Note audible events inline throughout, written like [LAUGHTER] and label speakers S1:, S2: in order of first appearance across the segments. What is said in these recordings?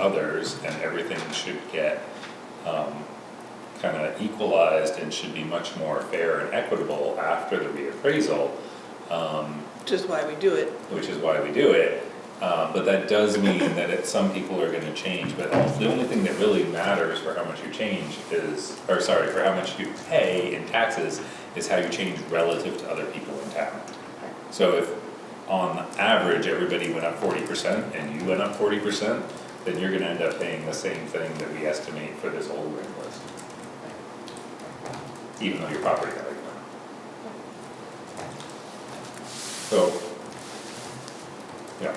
S1: others, and everything should get, um, kinda equalized and should be much more fair and equitable after the reappraisal, um,
S2: which is why we do it.
S1: which is why we do it. Uh, but that does mean that it, some people are gonna change, but also the only thing that really matters for how much you change is, or sorry, for how much you pay in taxes is how you change relative to other people in town. So if on average, everybody went up forty percent and you went up forty percent, then you're gonna end up paying the same thing that we estimate for this whole ring list. Even though your property value went up. So, yeah,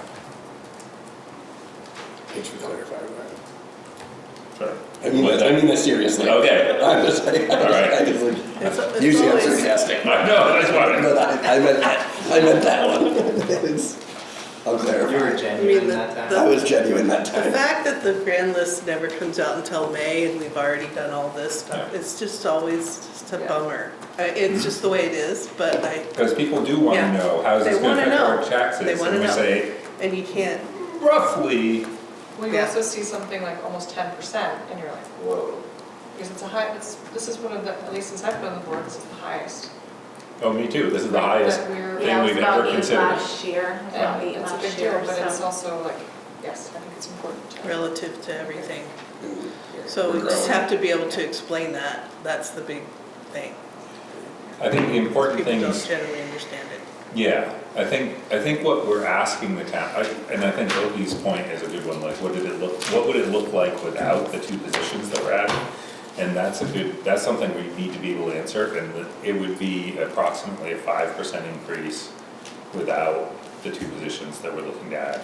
S3: Thanks for clarifying that.
S1: sure.
S3: I mean, that- I mean that seriously.
S1: Okay.
S3: I'm just like,
S1: All right.
S3: I was
S2: It's-
S3: like,
S2: it's
S3: usually I'm
S2: always-
S3: sarcastic.
S1: I know, that's why.
S3: But I, I meant that, I meant that one. [LAUGHS] It's- I'm
S4: You were
S3: clarifying.
S2: I mean,
S4: genuine
S2: the-
S4: that
S2: the-
S3: I
S4: time.
S3: was genuine that
S2: The
S3: time.
S2: fact that the grand list never comes out until May and we've already done all this stuff,
S1: Yeah.
S2: it's just always just a
S4: Yeah.
S2: bummer. Uh, It's just the way it is, but I,
S1: Because people do wanna
S2: Yeah.
S1: know, how's this
S2: They
S1: gonna
S2: wanna
S1: affect our
S2: know.
S1: taxes?
S2: They wanna
S1: And we
S2: know.
S1: say,
S2: and you can't,
S1: roughly,
S5: Well, you
S2: Yeah.
S5: also see something like almost ten percent, and you're like, whoa, because it's a high, it's, this is one of the, at least since I've been on the board, this is the highest.
S1: oh, me too, this is the highest
S5: That we're-
S1: thing we've ever
S6: Yeah, it
S1: considered.
S6: was about eight last year, it was
S5: Yeah,
S6: about eight
S5: it's a big
S6: last
S5: deal,
S6: year,
S5: but it's
S6: so.
S5: also like, yes, I think it's important to.
S2: relative to everything. So we just have to be able to explain that, that's the big thing.
S1: I think the important
S2: People
S1: thing
S2: don't
S1: is
S2: generally understand it.
S1: Yeah, I think, I think what we're asking the town, I- and I think Opie's point is a good one, like, what did it look, what would it look like without the two positions that we're adding? And that's a good, that's something we need to be able to answer, and that it would be approximately a five percent increase without the two positions that we're looking to add.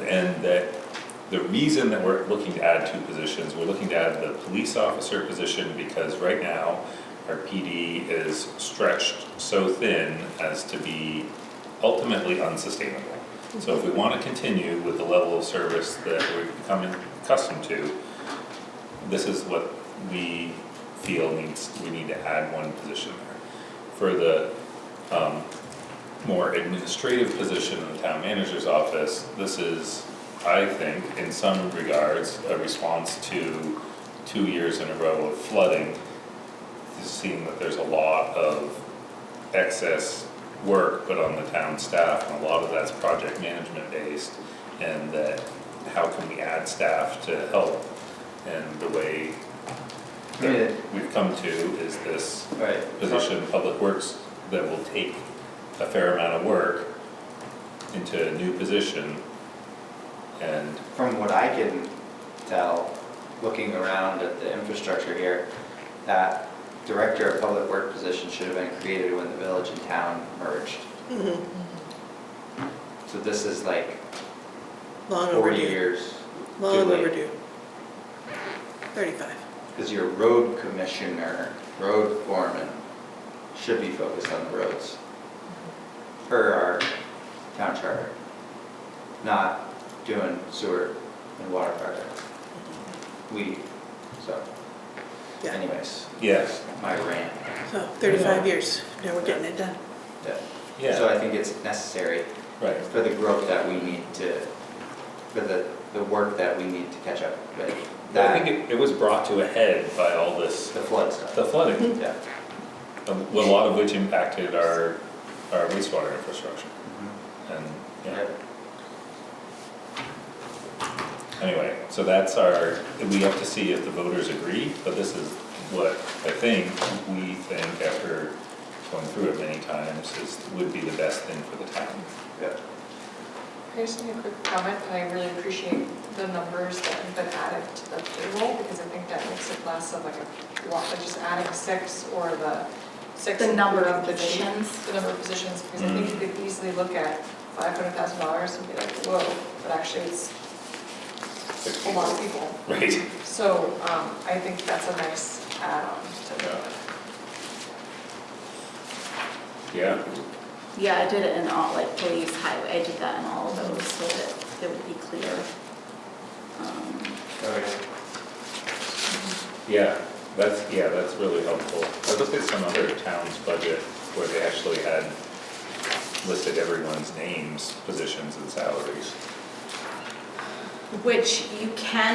S1: And that the reason that we're looking to add two positions, we're looking to add the police officer position because right now our PD is stretched so thin as to be ultimately unsustainable. So if we wanna continue with the level of service that we've become accustomed to, this is what we feel needs, we need to add one position there. For the, um, more administrative position in the town manager's office, this is, I think, in some regards, a response to two years in a row of flooding. Seeing that there's a lot of excess work put on the town staff, and a lot of that's project management based. And that, how can we add staff to help? And the way
S4: Yeah.
S1: that we've come to is this
S4: Right.
S1: position in Public Works that will take a fair amount of work into a new position. And,
S4: From what I can tell, looking around at the infrastructure here, that director of public work position should have been created when the village and town merged. So this is like
S2: Mm-hmm. Long
S4: forty
S2: overdue,
S4: years
S2: long
S4: too late.
S2: overdue. Thirty-five.
S4: Because your road commissioner, road foreman, should be focused on the roads. Per our town charter. Not doing sewer and water projects. We, so
S2: Yeah,
S4: anyways,
S1: yes,
S4: my rant.
S2: so thirty-five
S1: Yeah.
S2: years, now we're getting it done.
S4: Yeah. So
S1: yeah,
S4: I think it's necessary
S1: right.
S4: for the growth that we need to, for the, the work that we need to catch up with.
S1: I think
S4: That,
S1: it, it was brought to a head by all this,
S4: the flood stuff.
S1: the flooding,
S4: Yeah.
S1: a lot of which impacted our, our wastewater infrastructure. And, yeah, anyway, so that's our, we have to see if the voters agree, but this is what I think, we think after going through it many times, is, would be the best thing for the town. [LAUGHS]
S4: Yeah.
S5: Can I just make a quick comment, that I really appreciate the numbers that have been added to the payroll, because I think that makes it less of like a lot, like just adding six or the six.
S6: The number of
S5: including the chief,
S6: positions.
S5: The number of positions, because I think you could easily look at five hundred thousand dollars and be like, whoa, but actually it's a lot of people.
S1: Right.
S5: So, um, I think that's a nice add-on to
S1: Yeah.
S5: the.
S1: Yeah,
S6: Yeah, I did it in all, like police, highway, I did that in all of those so that it would be clear. Um,
S1: yeah, that's, yeah, that's really helpful. I looked at some other towns' budget where they actually had listed everyone's names, positions and salaries.
S6: Which you can